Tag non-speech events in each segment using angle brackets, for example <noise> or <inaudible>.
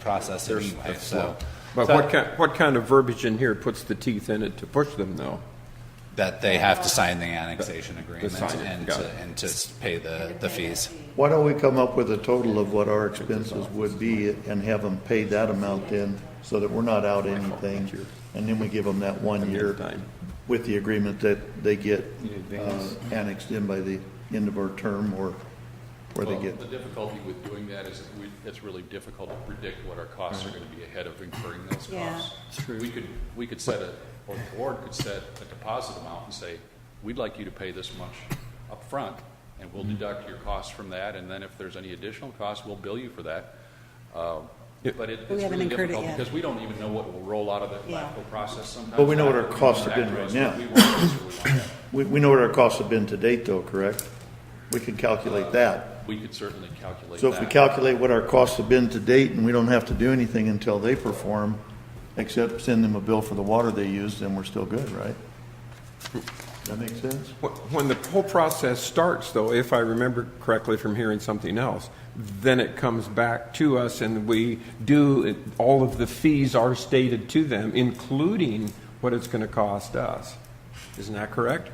process anyway, so. But so what kind, what kind of verbiage in here puts the teeth in it to push them, though? That they have to sign the annexation agreement sign it, and got to, it. and to s- pay the, the fees. Why don't we come up with a total of what our expenses would be and have them pay that amount then, so that we're not out anything? And then we give them that one year Time. with the agreement that they get uh, annexed in by the end of our term or where they Well, get. The difficulty with doing that is that we, it's really difficult to predict what our costs are going to be ahead of incurring those Yeah. costs. We could, we could set a, or the board could set a deposit amount and say, we'd like you to pay this much upfront, and Mm-hmm. we'll deduct your costs from that, and then if there's any additional costs, we'll bill you for that. Uh, Yeah. But it- We it's haven't really incurred it difficult, yet. because we don't even know what will roll out of the Yeah. LAFCO process sometimes. But we know what our LAFCO costs comes have back been to right us, but we want this or we want that. We, we know what our costs have been to date though, correct? We can calculate that. We could certainly calculate So if we that. calculate what our costs have been to date and we don't have to do anything until they perform, except send them a bill for the water they used, then we're still good, right? That make sense? Wh- When the whole process starts, though, if I remember correctly from hearing something else, then it comes back to us and we do, it- all of the fees are stated to them, including what it's going to cost us. Isn't that correct?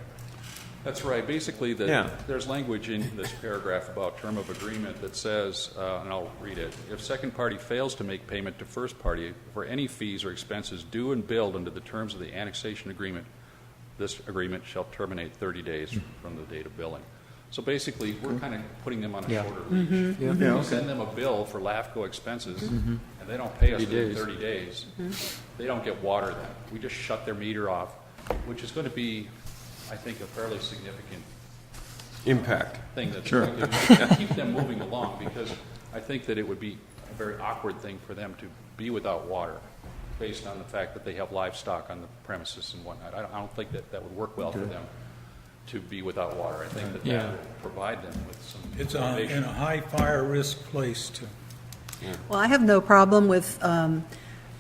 That's right. Basically, Yeah. the, there's language in this paragraph about term of agreement that says, uh, and I'll read it, if second party fails to make payment to first party for any fees or expenses due and billed under the terms of the annexation agreement, this agreement shall terminate 30 days from the date of billing. So basically, we're kind of putting them on a shorter leash. Yeah, We okay. send them a bill for LAFCO expenses, and they don't pay us within 30 days. They don't get water then. We just shut their meter off, which is going to be, I think, a fairly significant Impact. thing that's going to keep them moving along, because I think that it would be a very awkward thing for them to be without water, based on the fact that they have livestock on the premises and whatnot. I don't, I don't think that that would work well for them to be without water. I think that that would provide them with some It's a- in motivation. a high fire risk place to Well, I have no problem with, um,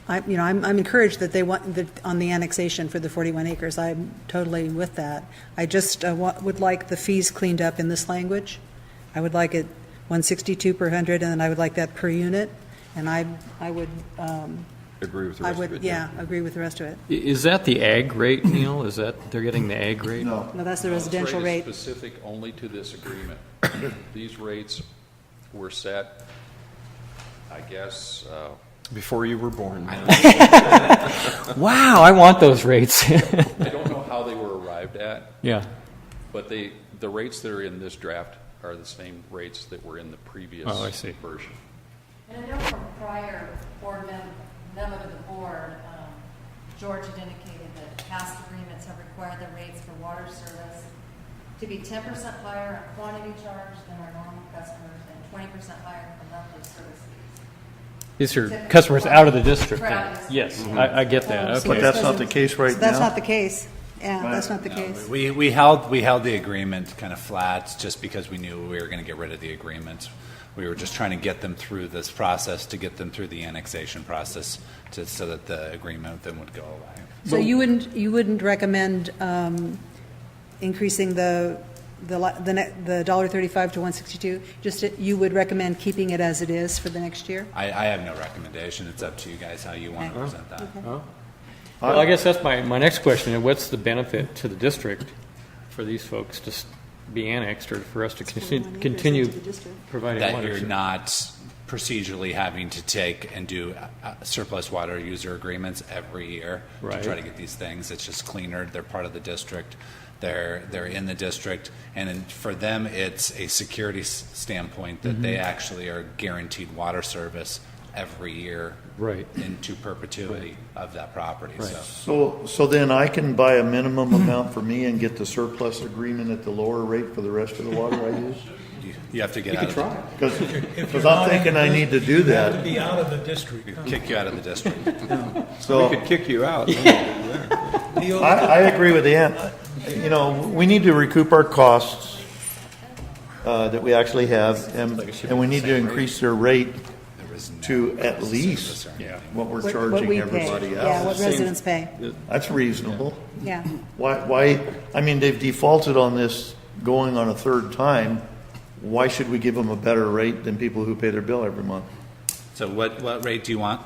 I, you know, I'm, I'm encouraged that they want, that on the annexation for the 41 acres, I'm totally with that. I just uh, wa- would like the fees cleaned up in this language. I would like it 162 per hundred, and then I would like that per unit, and I, I would, um, Agree with the I rest of it. would, yeah, agree with the rest of it. I- Is that the ag rate, Neil? Is that, they're getting the ag rate? No. No, that's the This residential is rate. Specific only to this agreement. These rates were set, I guess, uh, Before you were born. Wow, I want those rates. <laughs> I don't know how they were arrived at, Yeah. But they, the rates that are in this draft are the same rates that were in the previous Oh, I see. version. And I know from prior board mem- memo to the board, um, George had indicated that past agreements have required the rates for water service to be ten percent higher on quantity charged than our normal customers and twenty percent higher for monthly service fees. These are customers out of the district. then. Right, out of the Yes, district. I, I get that, So But okay. that's not the case right So That's now? not the case. Yeah, that's not the case. We, we held, we held the agreement kind of flat, just because we knew we were going to get rid of the agreement. We were just trying to get them through this process, to get them through the annexation process, to, so that the agreement then would go away. So you wouldn't, you wouldn't recommend um, increasing the, the, li- the ne- the dollar thirty-five to one sixty-two? Just, that you would recommend keeping it as it is for the next year? I, I have no recommendation, it's up to you guys how you Uh-huh. want to Okay. present that. Well, I guess that's my, my next question, what's the benefit to the district for these folks to s- be annexed or for us to conti- continue providing That you're water? not procedurally having to take and do uh, surplus water user agreements every year to try Right. to get these things. It's just cleaner. They're part of the district. They're, they're in the district. And then for them, it's a security s- standpoint that they actually are guaranteed water service every year. Right. Into perpetuity of that property. So So, so then I can buy a minimum amount for me and get the surplus agreement at the lower rate for the rest of the water I use? you, you have to get out of, Because, If because you're not I'm in thinking I the need to do to that, be out of the district. huh? kick you out of the district. We so could kick you out. I, I agree with Ann. You know, we need to recoup our costs, uh, that we actually have, and, and we need to increase their rate There is no to at service least or anything. what we're What- what we charging pay. everybody Yeah, else. what residents pay, That's reasonable. yeah. Why, why, I mean, they've defaulted on this going on a third time. Why should we give them a better rate than people who pay their bill every month? So what, what rate do you want?